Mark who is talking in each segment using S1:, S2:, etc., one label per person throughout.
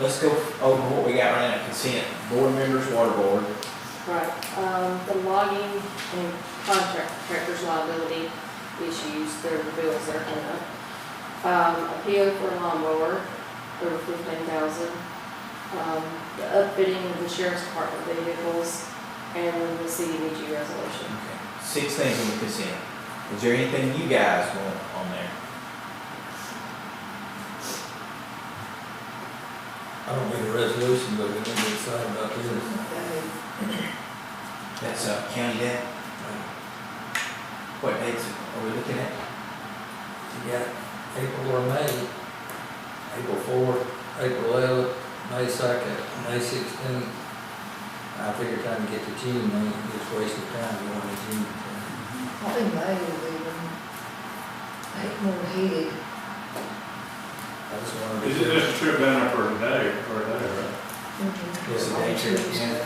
S1: let's go over what we got right now, consent, board members, water board.
S2: Right, um, the logging and contractor's liability issues, there are bills that are in it. Um, appeal for lawnmower, over fifteen thousand. Um, the upfitting of the sheriff's department vehicles, and the CDBG resolution.
S1: Six things on the consent. Is there anything you guys want on there?
S3: I don't need a resolution, but we need to decide about this.
S1: That's uh, county debt?
S3: Uh,
S1: What dates are we looking at?
S3: You got April or May, April fourth, April eleventh, May second, May sixteenth. I figure time to get to June, man, it's wasted time going to June.
S4: I think May will be when, eight more heated.
S3: I just wanted
S5: Is
S3: to.
S5: it just a trip down there for a day, for a day, right?
S3: Yes,
S1: the nature of it.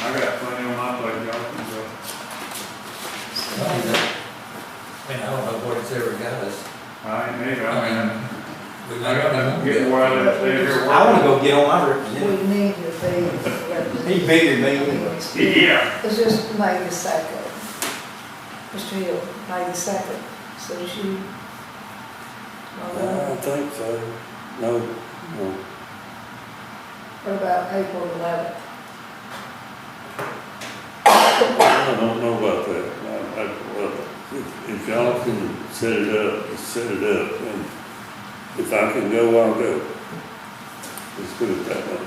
S5: I got plenty on my plate, y'all can go.
S3: I mean, that- I mean, I don't know what it's ever got us.
S5: I ain't neither, I mean,
S3: We
S5: I
S3: might not
S5: got to
S3: even
S5: get
S3: get
S5: where I live, stay here.
S1: I wanna go get on my
S4: We
S1: representative.
S4: need to be.
S1: He bigger than me anyway.
S5: Yeah,
S4: It's just May the second. Mr. Hill, May the second, so she. uh,
S6: Uh, I think so. No, no.
S4: What about April eleventh?
S6: I don't know about that. I, I, well, if, if y'all can set it up, set it up, and if I can go, I'll go. Let's put it that way.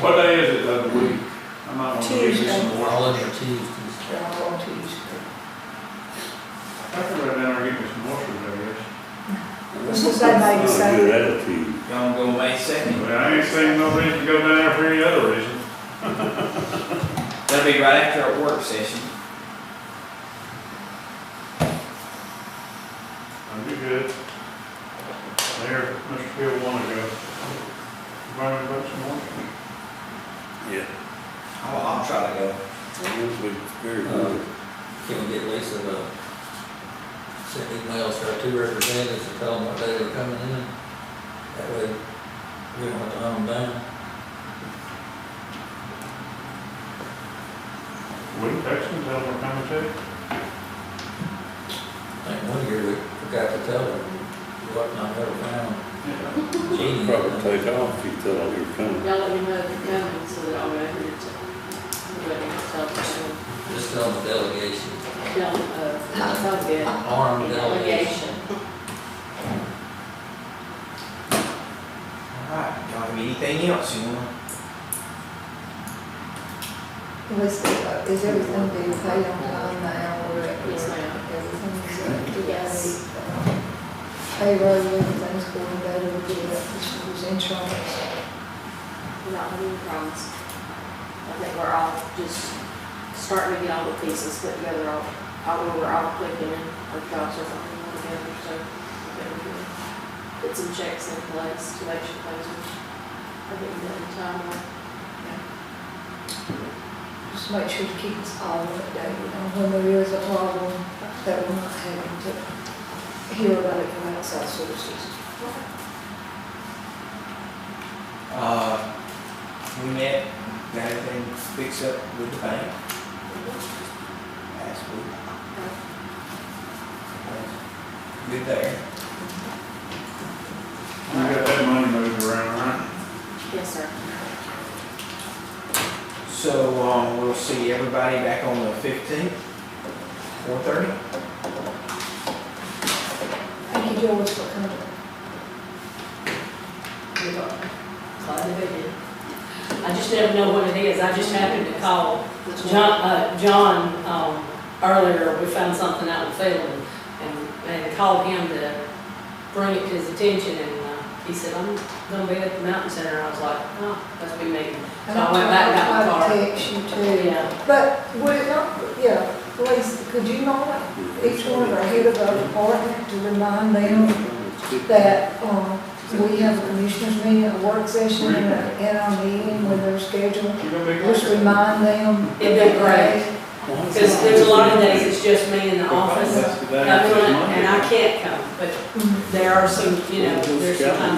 S5: what day is it of the week? I might want to give you some
S3: We're
S5: more.
S3: all in your Tuesdays.
S4: They're all on Tuesday.
S5: I can go down there and get me some more, I guess.
S4: Let's just say May the
S6: It's not a
S4: second.
S6: Good attitude.
S1: Y'all wanna go May second?
S5: But I ain't seen no reason to go down there for any other reason.
S1: That'll be right after our work session.
S5: I'll be good. There, Mr. Hill wanted to go. Brian, you got some more?
S6: Yeah.
S1: I'll, I'll try to go.
S6: It would be very good.
S3: Can we get Lisa to send emails to our two representatives and tell them what day they're coming in? That way, we don't have to hunt them down.
S5: We can text him, tell him we're coming to.
S3: I think one year we forgot to tell them, what not ever found.
S5: Yeah.
S3: Jeannie.
S6: Probably take off if you thought you were coming.
S2: Y'all let me know if you're coming, so that I'll remember to, everybody can tell them,
S3: Just tell them the delegation,
S2: tell them, uh, it's all good.
S3: armed delegation.
S2: Delegation.
S1: Alright, y'all have anything else you wanna?
S4: Was, is everything being paid on time now or?
S2: Yes, ma'am.
S4: Everything's.
S2: Yes.
S4: Payroll, everything's going better with the, with the insurance.
S2: We're not having any problems. I think we're all just starting to get all the pieces put together, all, all where we're all clicking and our jobs are working all together, so. I think we can Put some checks in place to make sure things are, I think, done in time.
S4: Just make sure to keep us all updated on when there is a problem that we're not having to hear about it from outside sources.
S1: Uh, we met, got everything fixed up with the bank last week. Good there.
S5: You got that money moved around, right?
S2: Yes, sir.
S1: So, um, we'll see everybody back on the fifteenth, four thirty.
S4: Thank you, George, for coming.
S7: Glad that they did. I just didn't know what it is, I just happened to call John, uh, John, um, earlier, we found something out in Phelan, and, and called him to bring it to his attention, and, uh, he said, I'm gonna be at the mountain center, I was like, oh, that's me, maybe.
S4: And
S7: So I went back and got the
S4: I tried
S7: car.
S4: to text you too.
S7: Yeah,
S4: But would it not, yeah, please, could you not, each one of our head of our department to remind them that, um, we have a commissioners meeting, a work session, and a, and a meeting when they're scheduled.
S5: You gonna be
S4: Just remind them.
S7: It'd be great. cause there's a lot of days it's just me in the office,
S5: That's the day.
S7: and I can't come, but there are some, you know, there's some times